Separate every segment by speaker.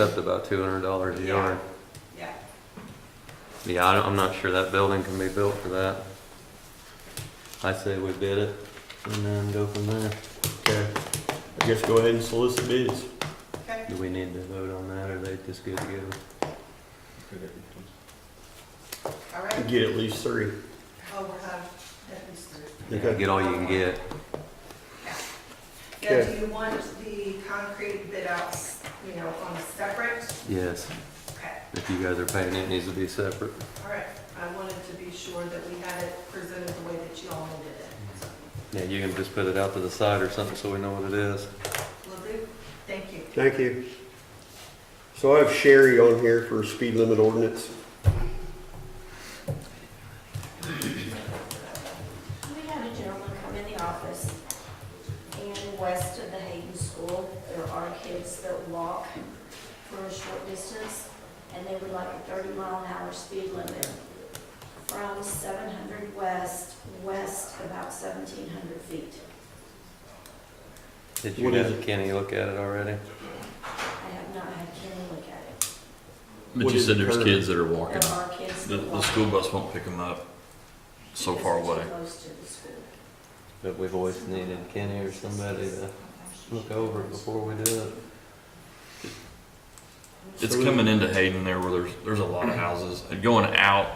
Speaker 1: That's about two hundred dollars a
Speaker 2: Yeah.
Speaker 1: yard.
Speaker 2: Yeah,
Speaker 1: Yeah, I don't- I'm not sure that building can be built for that. I say we bid it and then go from there.
Speaker 3: Okay, I guess go ahead and solicit bids.
Speaker 2: okay.
Speaker 1: Do we need to vote on that or they just good to go?
Speaker 2: All right.
Speaker 3: Get at least three.
Speaker 2: Oh, we're having, that is through.
Speaker 1: Yeah, Get all you can get.
Speaker 2: Now,
Speaker 3: Okay.
Speaker 2: do you want the concrete bid outs, you know, on a separate?
Speaker 1: Yes,
Speaker 2: Okay,
Speaker 1: if you guys are paying, it needs to be separate.
Speaker 2: all right. I wanted to be sure that we had it presented the way that you all needed it.
Speaker 1: Yeah, you can just put it out to the side or something so we know what it is.
Speaker 2: Will do. Thank you.
Speaker 3: Thank you. So I have Sherry on here for speed limit ordinance.
Speaker 4: We had a gentleman come in the office, and west of the Hayden School, there are kids that walk for a short distance, and they would like a thirty mile an hour speed limit from seven hundred west, west about seventeen hundred feet.
Speaker 1: Did you
Speaker 3: What is
Speaker 1: have Kenny look at it already?
Speaker 4: I have not had Kenny look at it.
Speaker 3: What
Speaker 5: But you
Speaker 3: is
Speaker 5: said
Speaker 3: the
Speaker 5: there's
Speaker 3: curve?
Speaker 5: kids that are walking.
Speaker 4: There are kids
Speaker 5: The,
Speaker 4: that
Speaker 5: the
Speaker 4: walk.
Speaker 5: school bus won't pick them up so
Speaker 4: because
Speaker 5: far
Speaker 4: they're too
Speaker 5: away.
Speaker 4: Close to the school.
Speaker 1: But we've always needed Kenny or somebody to look over it before we do it.
Speaker 5: It's coming into Hayden there where there's, there's a lot of houses. And going out,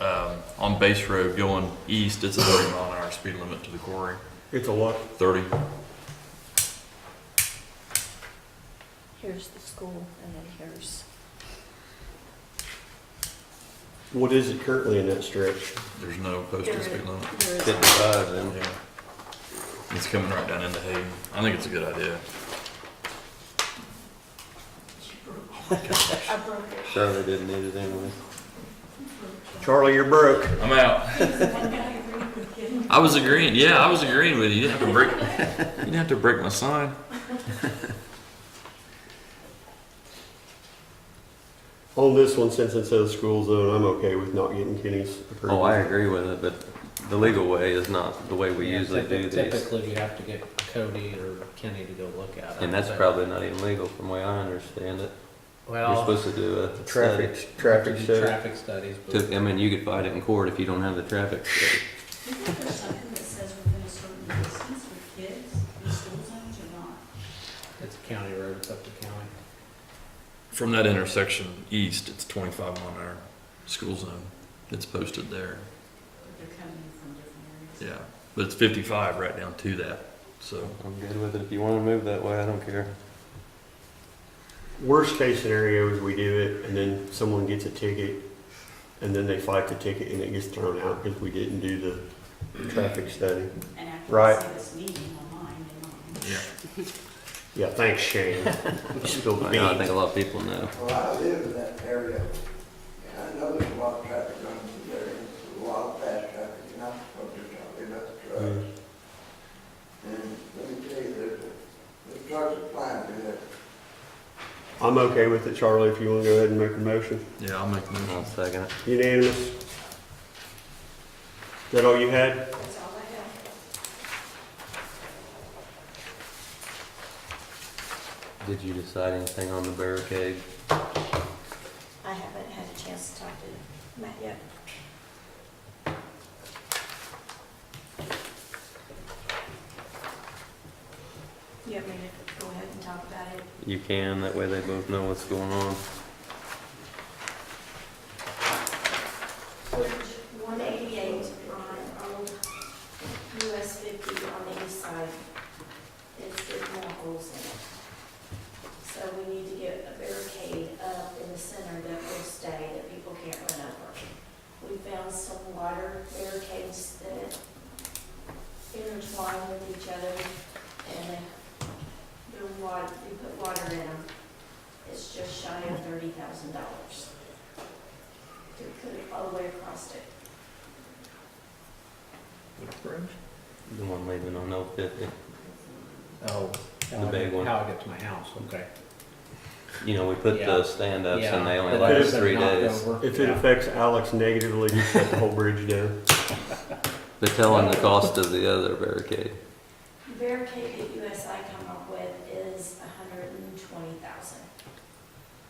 Speaker 5: um, on Base Road, going east, it's a thirty mile an hour speed limit to the quarry,
Speaker 3: It's a lot.
Speaker 5: thirty.
Speaker 4: Here's the school, and then here's.
Speaker 3: What is it currently in that stretch?
Speaker 5: There's no posted speed limit.
Speaker 4: There is
Speaker 1: Fifty-five then.
Speaker 5: Yeah. It's coming right down into Hayden. I think it's a good idea.
Speaker 4: a broker.
Speaker 1: Charlie didn't need it anyway.
Speaker 3: Charlie, you're broke.
Speaker 5: I'm out. I was agreeing, yeah, I was agreeing with you. You didn't have to break, you didn't have to break my sign.
Speaker 3: On this one, since it says school zone, I'm okay with not getting Kenny's approval.
Speaker 1: Oh, I agree with it, but the legal way is not the way we
Speaker 6: Yeah,
Speaker 1: usually do these.
Speaker 6: typi- Typically, you have to get Cody or Kenny to go look at it.
Speaker 1: And that's
Speaker 6: but-
Speaker 1: probably not even legal from the way I understand it. You're
Speaker 6: Well,
Speaker 1: supposed to do a study.
Speaker 3: Traffic, traffic study.
Speaker 6: traffic studies, but
Speaker 1: To- I mean, you could fight it in court if you don't have the traffic study.
Speaker 7: There's something that says within a certain distance with kids in school zones or not.
Speaker 6: it's a county road, it's up to county.
Speaker 5: From that intersection east, it's 25 on our school zone. It's posted there,
Speaker 7: But They're coming in from different areas.
Speaker 5: yeah. But it's 55 right down to that, so.
Speaker 1: I'm good with it. If you want to move that way, I don't care.
Speaker 3: Worst case scenario is we do it and then someone gets a ticket and then they fight the ticket and it gets thrown out because we didn't do the traffic study.
Speaker 7: And after I
Speaker 3: Right.
Speaker 7: see this meeting online, in mind.
Speaker 5: Yeah.
Speaker 3: Yeah, thanks Shane. You spilled the
Speaker 1: I know, I think
Speaker 3: beans.
Speaker 1: a lot of people know.
Speaker 8: Well, I live in that area, and I know there's a lot of traffic going through there, and there's a lot of fast traffic, and I'm supposed to talk about the
Speaker 3: Mm.
Speaker 8: trucks. And let me tell you, there's, a- the trucks are flying through there.
Speaker 3: I'm okay with it, Charlie, if you want to go ahead and make a motion.
Speaker 5: Yeah, I'll make the
Speaker 1: One
Speaker 5: motion.
Speaker 1: second. it.
Speaker 3: Unanimous? Is that all you had?
Speaker 4: That's all I have.
Speaker 1: Did you decide anything on the barricade?
Speaker 4: I haven't had a chance to talk to Matt yet. You want me to go ahead and talk about it?
Speaker 1: You can, that way they both know what's going on.
Speaker 4: Bridge one eighty-eight on old US fifty on the east side. It's got more holes in it. So we need to get a barricade up in the center that will stay, that people can't run over. We found some water barricades that intertwine with each other and the water, we put water in them. It's just shy of thirty thousand dollars to put it all the way across it.
Speaker 1: The one leaving on L fifty.
Speaker 6: Oh.
Speaker 1: The big one.
Speaker 6: How I get to my house, okay.
Speaker 1: You know, we put
Speaker 6: Yeah.
Speaker 1: the stand-ups
Speaker 6: Yeah,
Speaker 1: and they only
Speaker 6: but
Speaker 1: last
Speaker 6: it's been
Speaker 1: three
Speaker 6: knocked
Speaker 1: days.
Speaker 6: over,
Speaker 3: If it
Speaker 6: yeah.
Speaker 3: affects Alex negatively, you shut the whole bridge down.
Speaker 1: But tell them the cost of the other barricade.
Speaker 4: Barricade at